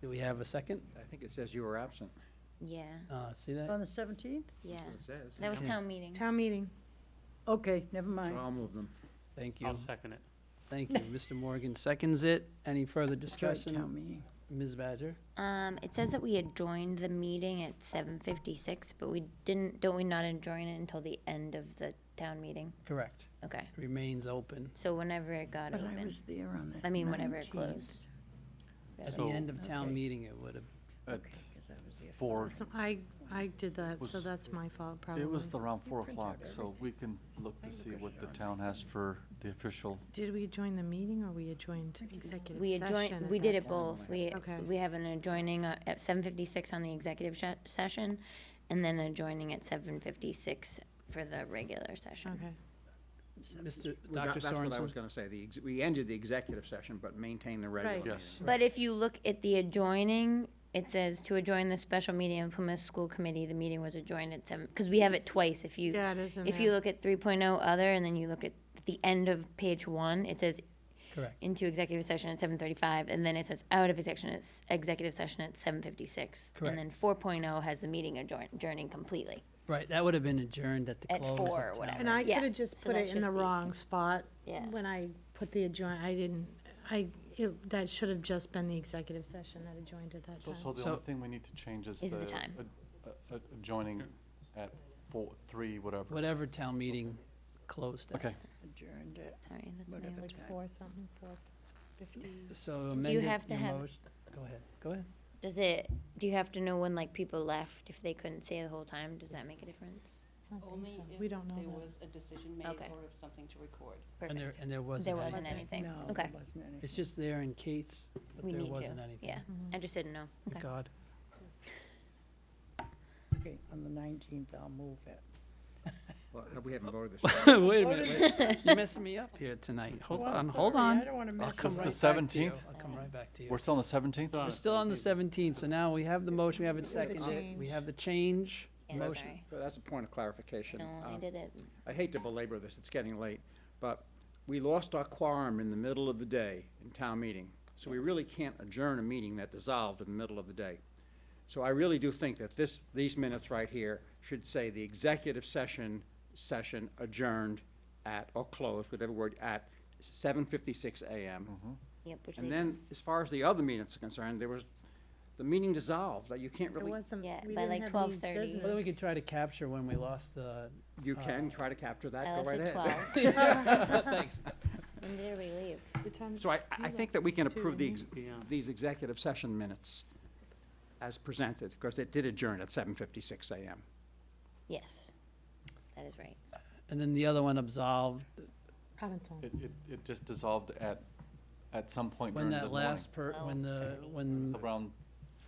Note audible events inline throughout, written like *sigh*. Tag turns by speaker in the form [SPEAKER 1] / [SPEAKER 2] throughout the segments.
[SPEAKER 1] Do we have a second?
[SPEAKER 2] I think it says you were absent.
[SPEAKER 3] Yeah,
[SPEAKER 1] Uh, see that?
[SPEAKER 4] On the 17th?
[SPEAKER 3] yeah.
[SPEAKER 2] That's what it says.
[SPEAKER 3] That was
[SPEAKER 1] Okay.
[SPEAKER 3] town meeting.
[SPEAKER 5] Town meeting.
[SPEAKER 4] Okay, never
[SPEAKER 2] So
[SPEAKER 4] mind.
[SPEAKER 2] I'll move them.
[SPEAKER 1] Thank you.
[SPEAKER 6] I'll second it.
[SPEAKER 1] Thank you. Mr. Morgan seconds it. Any further
[SPEAKER 4] It's right, town
[SPEAKER 1] discussion?
[SPEAKER 4] meeting.
[SPEAKER 1] Ms. Badger?
[SPEAKER 3] Um, it says that we adjourned the meeting at seven fifty-six, but we didn't, don't we not adjourn it until the end of the town meeting?
[SPEAKER 1] Correct.
[SPEAKER 3] Okay,
[SPEAKER 1] Remains open.
[SPEAKER 3] so whenever it got
[SPEAKER 4] But I
[SPEAKER 3] open,
[SPEAKER 4] was there on the 19th.
[SPEAKER 3] I mean, whenever it closed.
[SPEAKER 1] At the
[SPEAKER 6] So-
[SPEAKER 1] end of town
[SPEAKER 4] Okay.
[SPEAKER 1] meeting, it would have,
[SPEAKER 6] At
[SPEAKER 4] Okay, 'cause I was there.
[SPEAKER 6] four,
[SPEAKER 5] So I, I did that, so
[SPEAKER 6] Was-
[SPEAKER 5] that's my fault, probably.
[SPEAKER 6] it was around four
[SPEAKER 4] print out
[SPEAKER 6] o'clock, so we can look to see what the town has for the official.
[SPEAKER 5] Did we adjoin the meeting or we adjoined executive
[SPEAKER 3] We
[SPEAKER 5] session?
[SPEAKER 3] adjoined,
[SPEAKER 5] at
[SPEAKER 3] we did
[SPEAKER 5] that
[SPEAKER 3] it
[SPEAKER 5] time?
[SPEAKER 3] both. We,
[SPEAKER 5] Okay.
[SPEAKER 3] we have an adjoining uh, at seven fifty-six on the executive sh- session and then adjoining at seven fifty-six for the regular session.
[SPEAKER 5] Okay.
[SPEAKER 1] Mr.
[SPEAKER 2] Well, that-
[SPEAKER 1] Dr.
[SPEAKER 2] That's what I was
[SPEAKER 1] Sorensen?
[SPEAKER 2] gonna say. The, ex- we ended the executive session, but maintained the regular
[SPEAKER 5] Right.
[SPEAKER 2] meeting.
[SPEAKER 6] Yes.
[SPEAKER 3] But if you look at the adjoining, it says to adjoin the special meeting of Plymouth School Committee, the meeting was adjoined at seven, because we have it twice. If you,
[SPEAKER 5] Yeah, it is in
[SPEAKER 3] if you
[SPEAKER 5] there.
[SPEAKER 3] look at three oh other and then you look at the end of page one, it says
[SPEAKER 1] Correct.
[SPEAKER 3] into executive session at seven thirty-five, and then it says out of executive, session at s- executive session at seven fifty-six.
[SPEAKER 1] Correct.
[SPEAKER 3] And then four oh has the meeting adjourn- adjourning completely.
[SPEAKER 1] Right, that would have been adjourned at the
[SPEAKER 3] At
[SPEAKER 1] close of
[SPEAKER 3] four or
[SPEAKER 1] town.
[SPEAKER 3] whatever.
[SPEAKER 5] And I
[SPEAKER 3] Yeah,
[SPEAKER 5] could have just
[SPEAKER 3] so
[SPEAKER 5] put
[SPEAKER 3] that's
[SPEAKER 5] it in the
[SPEAKER 3] just the-
[SPEAKER 5] wrong spot.
[SPEAKER 3] Yeah.
[SPEAKER 5] When I put the adjoin, I didn't, I, it- that should have just been the executive session that adjoined at that
[SPEAKER 6] So,
[SPEAKER 5] time.
[SPEAKER 6] so the
[SPEAKER 1] So-
[SPEAKER 6] only thing we need to change is the.
[SPEAKER 3] Is the time.
[SPEAKER 6] ad- a- a- Adjoining at four, three, whatever.
[SPEAKER 1] Whatever town meeting closed at.
[SPEAKER 6] Okay,
[SPEAKER 4] Adjourned it.
[SPEAKER 3] Sorry, that's my
[SPEAKER 4] Whatever.
[SPEAKER 3] old.
[SPEAKER 4] Okay.
[SPEAKER 5] Four something, four fifty.
[SPEAKER 1] So amended
[SPEAKER 3] have to
[SPEAKER 1] your
[SPEAKER 3] have-
[SPEAKER 1] motion- Go ahead, go ahead.
[SPEAKER 3] Does it, do you have to know when like people left, if they couldn't stay the whole time, does that make a difference?
[SPEAKER 7] Only
[SPEAKER 5] We
[SPEAKER 7] if
[SPEAKER 5] don't know
[SPEAKER 7] there
[SPEAKER 5] that.
[SPEAKER 7] was a decision made
[SPEAKER 3] Okay.
[SPEAKER 7] or if something to record.
[SPEAKER 1] And there,
[SPEAKER 3] Perfect.
[SPEAKER 1] and there wasn't
[SPEAKER 3] There wasn't
[SPEAKER 1] anything.
[SPEAKER 3] anything,
[SPEAKER 4] No,
[SPEAKER 3] okay.
[SPEAKER 4] there wasn't anything.
[SPEAKER 1] It's just there in case, but
[SPEAKER 3] We
[SPEAKER 1] there
[SPEAKER 3] need to,
[SPEAKER 1] wasn't anything.
[SPEAKER 3] Yeah, I just didn't know,
[SPEAKER 1] Thank
[SPEAKER 3] okay.
[SPEAKER 1] God.
[SPEAKER 4] Okay, On the 19th, I'll move it.
[SPEAKER 2] Well, we haven't voted this.
[SPEAKER 1] Wait a minute, wait. you're messing me up here tonight. Hold
[SPEAKER 4] Well,
[SPEAKER 1] on,
[SPEAKER 4] I'm
[SPEAKER 1] hold
[SPEAKER 4] sorry,
[SPEAKER 1] on.
[SPEAKER 4] I don't want to
[SPEAKER 1] I'll
[SPEAKER 4] mess
[SPEAKER 1] come
[SPEAKER 4] them
[SPEAKER 6] Because
[SPEAKER 1] right
[SPEAKER 6] the
[SPEAKER 1] back
[SPEAKER 4] right.
[SPEAKER 1] to you.
[SPEAKER 6] 17th?
[SPEAKER 1] I'll come right back to you.
[SPEAKER 6] we're still on the seventeenth?
[SPEAKER 1] We're still on the seventeenth, so now we have the motion, we have it seconded,
[SPEAKER 5] change.
[SPEAKER 1] we have the change.
[SPEAKER 3] *laughs* Yeah,
[SPEAKER 1] Motion.
[SPEAKER 3] sorry.
[SPEAKER 2] So That's a point of clarification.
[SPEAKER 3] No, I
[SPEAKER 2] Um,
[SPEAKER 3] did it.
[SPEAKER 2] I hate to belabor this, it's getting late, but we lost our quorum in the middle of the day in town meeting. So we really can't adjourn a meeting that dissolved in the middle of the day. So I really do think that this, these minutes right here should say the executive session, session adjourned at, or closed, whatever word, at seven fifty-six AM.
[SPEAKER 3] Yep, which
[SPEAKER 2] And
[SPEAKER 3] they,
[SPEAKER 2] then, as far as the other minutes are concerned, there was, the meeting dissolved, that you can't
[SPEAKER 5] It
[SPEAKER 2] really,
[SPEAKER 5] wasn't,
[SPEAKER 3] Yeah,
[SPEAKER 5] we
[SPEAKER 3] by, like,
[SPEAKER 5] didn't have any
[SPEAKER 3] 12:30.
[SPEAKER 5] business.
[SPEAKER 1] Well, then we could try to capture when we lost the,
[SPEAKER 2] you can try to capture that,
[SPEAKER 3] I
[SPEAKER 2] go right
[SPEAKER 3] left Oh, at
[SPEAKER 2] ahead. *laughs*
[SPEAKER 3] twelve.
[SPEAKER 1] thanks.
[SPEAKER 3] When did we leave?
[SPEAKER 5] The time-
[SPEAKER 2] So I, I think that we can
[SPEAKER 5] Two,
[SPEAKER 2] approve the,
[SPEAKER 5] didn't
[SPEAKER 2] ex- these executive session minutes as presented, because it did adjourn at seven fifty-six AM.
[SPEAKER 3] Yes, that is right.
[SPEAKER 1] And then the other one absolved,
[SPEAKER 5] Paddington.
[SPEAKER 6] It, it, it just dissolved at, at some point during
[SPEAKER 1] when
[SPEAKER 6] the
[SPEAKER 1] that
[SPEAKER 6] morning.
[SPEAKER 1] last per, when the,
[SPEAKER 3] 12:30.
[SPEAKER 1] when
[SPEAKER 6] Around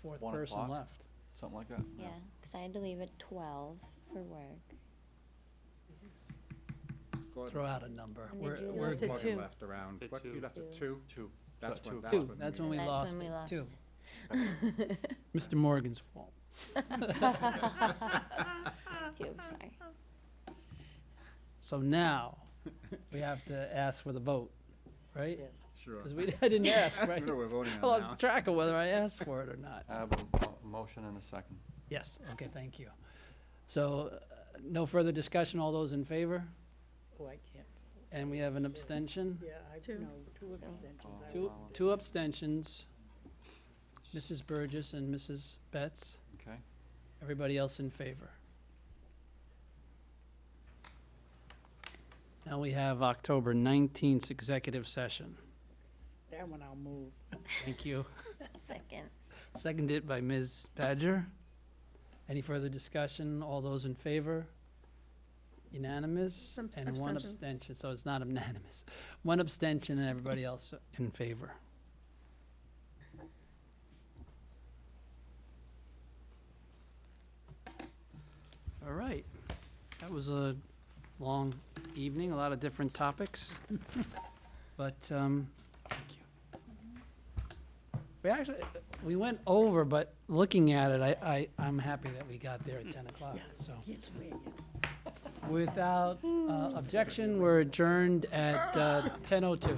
[SPEAKER 1] fourth
[SPEAKER 6] one
[SPEAKER 1] person
[SPEAKER 6] o'clock.
[SPEAKER 1] left.
[SPEAKER 6] something like that.
[SPEAKER 3] Yeah, because I had to leave at twelve for work.
[SPEAKER 1] Throw out a number.
[SPEAKER 3] And they
[SPEAKER 1] We're,
[SPEAKER 3] do
[SPEAKER 1] we're
[SPEAKER 5] Left at
[SPEAKER 1] good.
[SPEAKER 5] two.
[SPEAKER 2] uh, left around,
[SPEAKER 6] At
[SPEAKER 2] what, you
[SPEAKER 6] two.
[SPEAKER 2] left at
[SPEAKER 3] Two.
[SPEAKER 2] two?
[SPEAKER 6] Two.
[SPEAKER 2] That's
[SPEAKER 6] Two
[SPEAKER 2] when,
[SPEAKER 6] o'clock.
[SPEAKER 2] that's
[SPEAKER 1] Two,
[SPEAKER 2] when.
[SPEAKER 1] that's
[SPEAKER 2] we-
[SPEAKER 1] when we
[SPEAKER 3] That's
[SPEAKER 1] lost
[SPEAKER 3] when we
[SPEAKER 1] it,
[SPEAKER 3] lost.
[SPEAKER 1] two. Mr. Morgan's fault.
[SPEAKER 3] Two, sorry. *laughs*
[SPEAKER 1] So
[SPEAKER 6] *laughs*
[SPEAKER 1] now, we have to ask for the vote, right? *laughs*
[SPEAKER 2] Sure. *laughs*
[SPEAKER 1] Because we, I didn't ask,
[SPEAKER 2] I
[SPEAKER 1] right?
[SPEAKER 6] *laughs*
[SPEAKER 2] don't know we're voting
[SPEAKER 1] I
[SPEAKER 2] on now.
[SPEAKER 1] lost track of whether I asked for it or not.
[SPEAKER 6] I have a mo- motion and a second.
[SPEAKER 1] Yes, okay, thank you. So, uh, no further discussion, all those in favor?
[SPEAKER 4] Oh, I can't.
[SPEAKER 1] And we have an abstention?
[SPEAKER 4] Yeah, I,
[SPEAKER 5] Two.
[SPEAKER 4] no, two abstentions. I
[SPEAKER 1] Two,
[SPEAKER 4] was there.
[SPEAKER 1] two abstentions, Mrs. Burgess and Mrs. Betts,
[SPEAKER 6] Okay.
[SPEAKER 1] everybody else in favor. Now we have October 19th executive session.
[SPEAKER 4] That one I'll move.
[SPEAKER 1] Thank you.
[SPEAKER 3] Second.
[SPEAKER 1] Seconded by Ms. Badger. Any further discussion? All those in favor? Unanimous?
[SPEAKER 5] Some
[SPEAKER 1] And one
[SPEAKER 5] abstention.
[SPEAKER 1] abstention, so it's not unanimous. *laughs* One abstention and everybody else in favor. All right. That was a long evening, a lot of different topics. But, um, thank you. We actually, we went over, but looking at it, I, I, I'm happy that we got there at ten o'clock, so.
[SPEAKER 4] Yes, wait, yes.
[SPEAKER 1] Without uh, objection, we're adjourned at uh, ten oh two.